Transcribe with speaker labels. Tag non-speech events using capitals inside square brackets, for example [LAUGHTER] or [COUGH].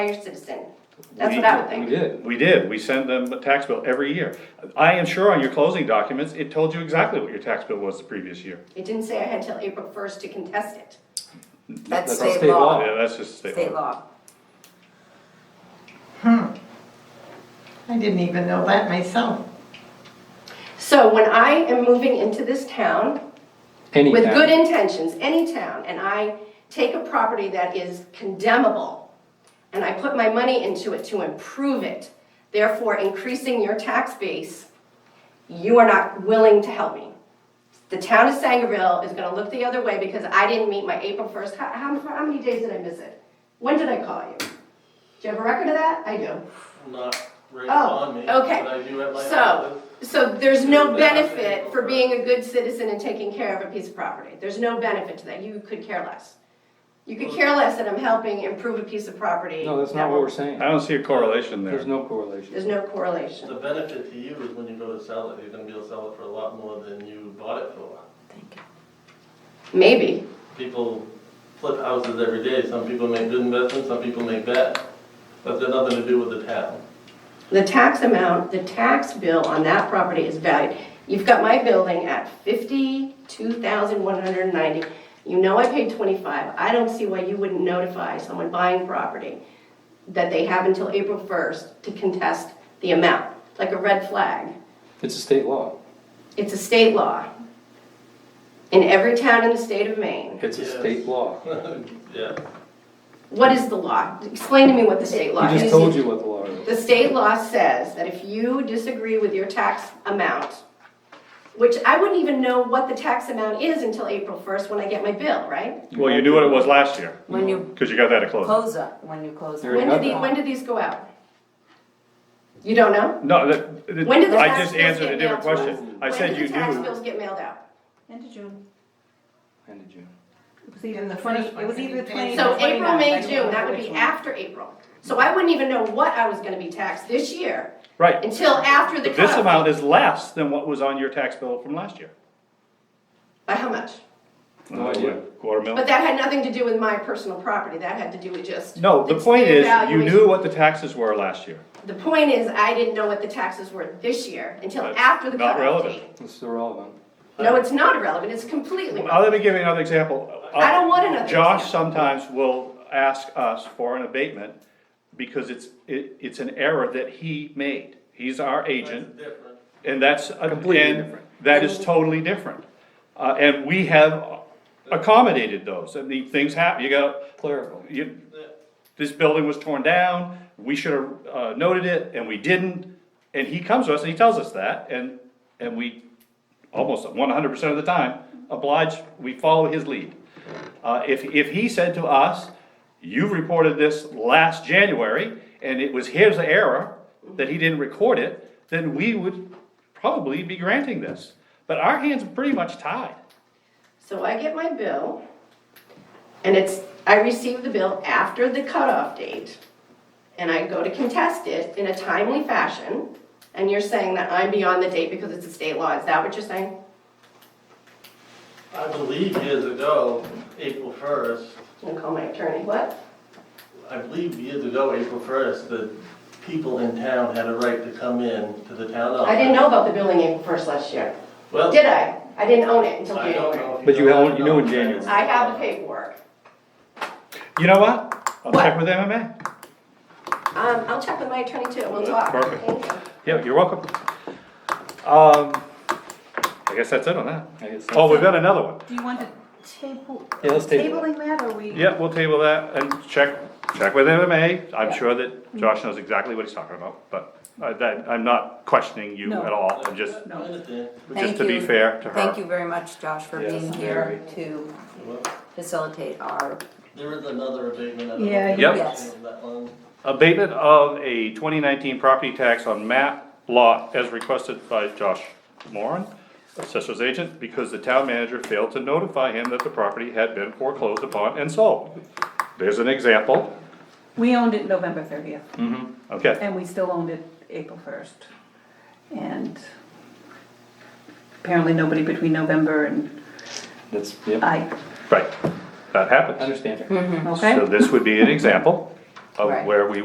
Speaker 1: your citizen. That's what I would
Speaker 2: We
Speaker 1: think.
Speaker 2: did.
Speaker 3: We did, we sent them a tax bill every year. I am sure on your closing documents, it told you exactly what your tax bill was the previous year.
Speaker 1: It didn't say I had till April first to contest it.
Speaker 4: That's
Speaker 2: That's
Speaker 4: state
Speaker 2: state
Speaker 4: law,
Speaker 1: Oh.
Speaker 2: law.
Speaker 3: Yeah, that's just state
Speaker 4: state
Speaker 3: law.
Speaker 4: law.
Speaker 5: I didn't even know that myself.
Speaker 1: So when I am moving into this town
Speaker 2: Any
Speaker 1: with
Speaker 2: town.
Speaker 1: good intentions, any town, and I take a property that is condemnable and I put my money into it to improve it, therefore increasing your tax base, you are not willing to help me. The town of Sangerville is gonna look the other way because I didn't meet my April first, how, how, how many days did I miss it? When did I call you? Do you have a record of that? I do.
Speaker 6: Not right
Speaker 1: Oh,
Speaker 6: on me, but
Speaker 1: okay.
Speaker 6: I do have my.
Speaker 1: So, so there's no benefit for being a good citizen and taking care of a piece of property. There's no benefit to that. You could care less. You could care less that I'm helping improve a piece of property.
Speaker 2: No, that's not what we're saying.
Speaker 3: I don't see a correlation there.
Speaker 2: There's no correlation.
Speaker 1: There's no
Speaker 6: The
Speaker 1: correlation.
Speaker 6: benefit to you is when you go to sell it, you're gonna be able to sell it for a lot more than you bought it for.
Speaker 1: Maybe.
Speaker 6: People flip houses every day, some people make good investments, some people make bad. That's got nothing to do with the town. [LAUGHS]
Speaker 1: The tax amount, the tax bill on that property is valued. You've got my building at fifty-two thousand one hundred and ninety. You know I paid twenty-five. I don't see why you wouldn't notify someone buying property that they have until April first to contest the amount, It's like a red flag.
Speaker 2: It's a state law.
Speaker 1: It's a state law in every town in the state of Maine.
Speaker 2: It's a
Speaker 6: Yes.
Speaker 2: state law.
Speaker 6: Yeah,
Speaker 1: What is the law? Explain to me what the state law
Speaker 2: He
Speaker 1: is.
Speaker 2: just told you what the law is.
Speaker 1: The state law says that if you disagree with your tax amount, which I wouldn't even know what the tax amount is until April first when I get my bill, right?
Speaker 3: Well, you knew what it was last year,
Speaker 4: When you
Speaker 3: because you got that at closing.
Speaker 4: close up, when you close
Speaker 2: There you
Speaker 1: When
Speaker 2: go.
Speaker 4: up.
Speaker 1: do the, when do these go out? You don't know?
Speaker 3: No, that, that-
Speaker 1: When did the
Speaker 3: I
Speaker 1: tax
Speaker 3: just
Speaker 1: bills
Speaker 3: answered a
Speaker 1: get
Speaker 3: different
Speaker 1: mailed to us?
Speaker 3: question. I said you
Speaker 1: When do the tax bills
Speaker 3: knew.
Speaker 1: get mailed out?
Speaker 7: End of June.
Speaker 2: End of June.
Speaker 7: It was either
Speaker 5: In
Speaker 7: the
Speaker 5: the
Speaker 7: twenty,
Speaker 5: first
Speaker 7: it was
Speaker 5: one,
Speaker 7: either
Speaker 5: I
Speaker 7: the
Speaker 5: think.
Speaker 7: twenty.
Speaker 1: So
Speaker 7: or the
Speaker 1: April,
Speaker 7: 29th, I
Speaker 1: May,
Speaker 7: don't
Speaker 1: June,
Speaker 7: remember
Speaker 1: that would
Speaker 7: which
Speaker 1: be
Speaker 7: one.
Speaker 1: after April. So I wouldn't even know what I was gonna be taxed this year
Speaker 3: Right,
Speaker 1: until after the
Speaker 3: but this
Speaker 1: cutoff.
Speaker 3: amount is less than what was on your tax bill from last year.
Speaker 1: By how much?
Speaker 2: No idea.
Speaker 3: Quarter mil.
Speaker 1: But that had nothing to do with my personal property, that had to do with just.
Speaker 3: No, the
Speaker 1: it's
Speaker 3: point
Speaker 1: their
Speaker 3: is, you
Speaker 1: valuation.
Speaker 3: knew what the taxes were last year.
Speaker 1: The point is, I didn't know what the taxes were this year until
Speaker 3: That's
Speaker 1: after the
Speaker 3: not
Speaker 1: cutoff
Speaker 3: relevant.
Speaker 1: date.
Speaker 2: It's still relevant.
Speaker 1: No, it's not irrelevant, it's completely,
Speaker 3: Well, let me give you another example. Uh,
Speaker 1: I don't want another
Speaker 3: Josh
Speaker 1: example.
Speaker 3: sometimes will ask us for an abatement because it's, it, it's an error that he made. He's our
Speaker 6: it's
Speaker 3: agent
Speaker 6: different.
Speaker 3: and that's,
Speaker 2: Completely
Speaker 3: and
Speaker 2: different.
Speaker 3: that is totally different. Uh, and we have accommodated those. I mean, things happen, you got,
Speaker 2: Clerical.
Speaker 3: you, this building was torn down, we should have uh, noted it, and we didn't. And he comes to us and he tells us that, and, and we, almost one hundred percent of the time, oblige, we follow his lead. Uh, if, if he said to us, you reported this last January, and it was his error that he didn't record it, then we would probably be granting this. But our hands are pretty much tied.
Speaker 1: so I get my bill, and it's, I receive the bill after the cutoff date, and I go to contest it in a timely fashion, and you're saying that I'm beyond the date because it's a state law, is that what you're saying?
Speaker 6: I believe years ago, April first,
Speaker 1: I'm gonna call my attorney, what?
Speaker 6: I believe years ago, April first, the people in town had a right to come in to the town office.
Speaker 1: I didn't know about the building April first last year,
Speaker 6: Well,
Speaker 1: did I? I didn't own it until
Speaker 6: I don't
Speaker 1: January.
Speaker 6: know. if
Speaker 2: But you
Speaker 6: know
Speaker 2: held-
Speaker 6: that.
Speaker 2: you knew in January.
Speaker 1: I have the paperwork,
Speaker 3: You know what? I'll check
Speaker 1: What?
Speaker 3: with MMA.
Speaker 1: um, I'll check with my attorney too, we'll
Speaker 3: Well,
Speaker 1: talk.
Speaker 3: perfect.
Speaker 1: Thank you.
Speaker 3: Yeah, you're welcome. Um, I guess that's it on that.
Speaker 2: I guess.
Speaker 3: Oh, we've got another one.
Speaker 7: Do you want to table,
Speaker 2: Yeah, let's table it.
Speaker 7: tabling that, or we?
Speaker 3: Yeah, we'll table that and check, check with MMA. I'm sure that Josh knows exactly what he's talking about, but I, that, I'm not questioning you
Speaker 7: No.
Speaker 3: at all. I'm just,
Speaker 6: I understand.
Speaker 3: just
Speaker 4: Thank
Speaker 3: to be
Speaker 4: you.
Speaker 3: fair to her.
Speaker 4: Thank you very much, Josh, for
Speaker 2: Yes,
Speaker 4: being here
Speaker 2: very.
Speaker 4: to
Speaker 6: Well,
Speaker 4: facilitate our,
Speaker 6: There is another abatement. I don't know
Speaker 7: Yeah,
Speaker 6: if
Speaker 3: Yep.
Speaker 6: you
Speaker 4: yes.
Speaker 6: know that one.
Speaker 3: Abatement of a twenty nineteen property tax on map lot as requested by Josh Moran, assessor's agent, because the town manager failed to notify him that the property had been foreclosed upon and sold. There's an example,
Speaker 7: We owned it November thirtieth,
Speaker 3: okay,
Speaker 7: and we still owned it April first. And apparently nobody between November and
Speaker 2: That's, yep,
Speaker 7: I,
Speaker 3: right, that happens.
Speaker 1: Hmm.
Speaker 2: understand.
Speaker 7: okay?
Speaker 3: So this would be an example of
Speaker 4: Right.
Speaker 3: where we